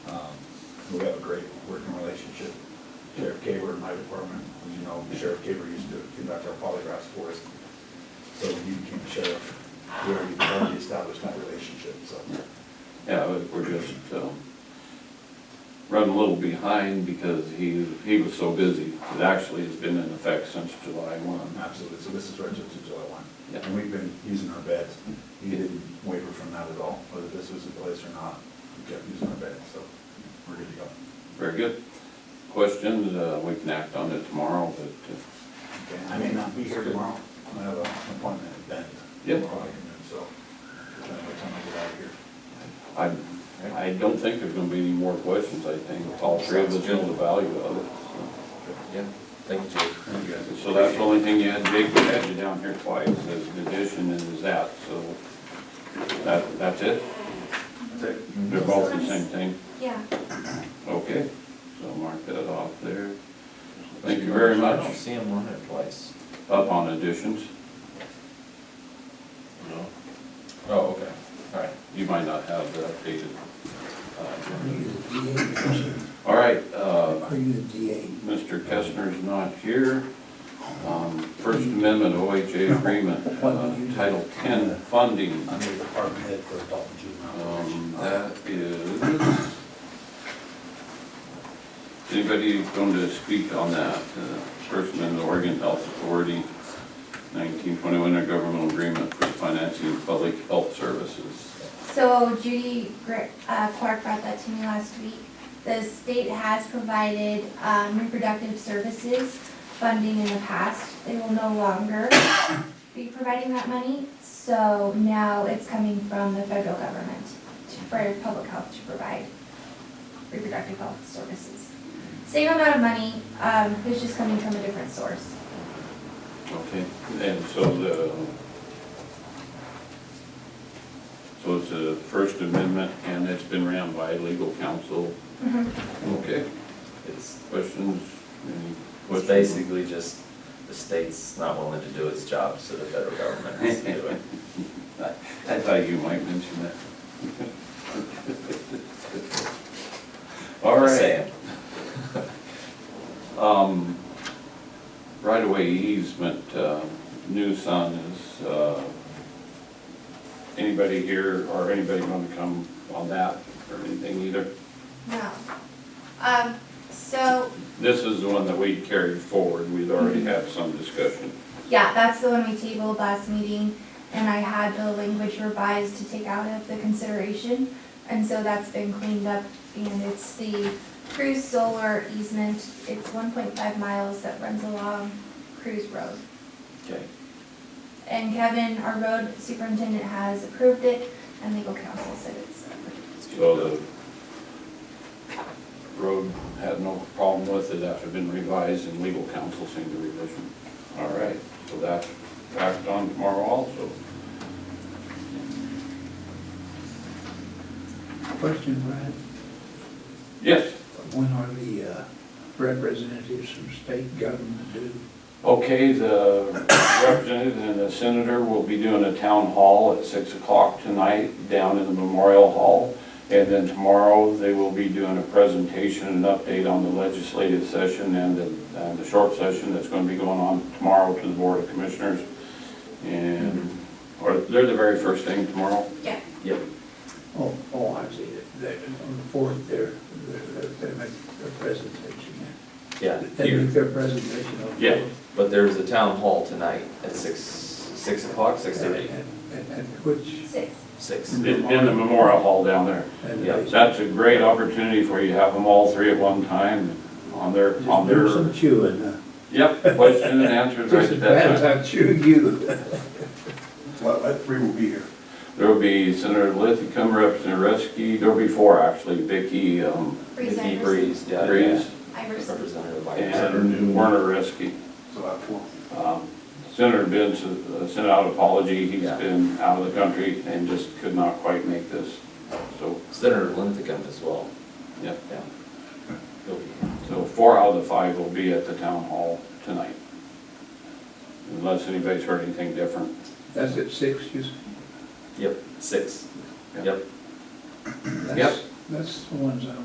Um, we have a great working relationship. Sheriff Caber in my department, as you know, Sheriff Caber used to conduct our polygraphs for us. So when you became sheriff, we already, already established that relationship, so. Yeah, we- we're just, um, running a little behind because he, he was so busy. It actually has been in effect since July one. um, Absolutely, so this is right up to July one. Yeah. And we've been using our beds. He didn't waver from that at all, whether this was in place or not, we kept using our beds, so we're good to go. Very good. Questions, uh, we can act on it tomorrow, but, uh, Okay, I may not be here tomorrow, I have an appointment at Ben. Yep. Tomorrow afternoon, So, by the time I get out of here. uh, I, I don't think there's gonna be any more questions, I think. All three of us know the value of it, so. Yeah, thank you, Jake. Thank you guys. So that's the only thing you had, Jake, we had you down here twice as an addition and as that, so that, that's it? That's it. They're both the same thing? Yeah. Okay, so mark that off there. Thank you very I don't much. see him running twice. Up on additions, No. Oh, okay, all right. you might not have the updated. uh, All right, uh, Are you a DA? Mr. Kestner's not here. Um, First Amendment OHA agreement, uh, Title 10 funding. I'm the department head for adult and juvenile. Um, That is. Anybody going to speak on that? Uh, First Amendment Oregon Health Authority, 1921, a governmental agreement for financing of public health services. So Judy Gr- uh, Clark brought that to me last week. The state has provided um, reproductive services funding in the past. They will no longer be providing that money. So now it's coming from the federal government to- for public health to provide reproductive health services. Same amount of money, um, it's just coming from a different source. Okay. And so the, so it's a First Amendment and it's been ran by legal counsel. Mm-hmm. Okay. It's, Questions? Any it's questions? basically just the state's not willing to do its job, so the federal government has to do it. I I thought you might mention that. All Just right. saying. Um, right away easement, uh, new sun is, uh, anybody here or anybody gonna come on that or anything either? No. Um, so This is the one that we carried forward. We'd already had some discussion. Yeah, that's the one we tabled last meeting, and I had the language revised to take out of the consideration. And so that's been cleaned up, and it's the Cruz Solar easement. It's one point five miles that runs along Cruz Road. Okay. And Kevin, our road superintendent, has approved it, and legal counsel said it's approved. So the road had no problem with it after been revised and legal counsel seemed to revision. All right, so that's backed on tomorrow also. Question, Brad, Yes, when are the uh, representatives from state government due? okay, the representative and the senator will be doing a town hall at six o'clock tonight down in the Memorial Hall. And then tomorrow, they will be doing a presentation and update on the legislative session and the, and the short session that's gonna be going on tomorrow to the Board of Commissioners. And, or they're the very first thing tomorrow. Yeah. Yep, Oh, oh, I see, they, on the fourth, they're, they're, they make their presentation. yeah, They here. make their presentation on the fourth. Yeah. But there's a town hall tonight at six, six o'clock, six thirty, And, and which, Six. six. In in the Memorial Hall down there. and Yeah, they. That's a great opportunity for you to have them all three at one time on their, on Just their. do some chewing, uh, Yep, question and answers right just as at bad that as time. I chew you. Well, that three will be here. There'll be Senator Lithicum, Representative Reski, there'll be four actually, Vicky, um, Vicky Presenters. Breeze, yeah, yeah. Rees, Iverson. Representative Myers. and Werner Reski. So I have four. Um, Senator Benz uh, sent out an apology, he's Yeah. been out of the country and just could not quite make this. So, Senator Linthicum as well, yep, yeah. He'll be here. so four out of the five will be at the town hall tonight. Unless anybody's heard anything different. That's at six, you, s- Yep, six, Yeah. yep. that's, that's the ones I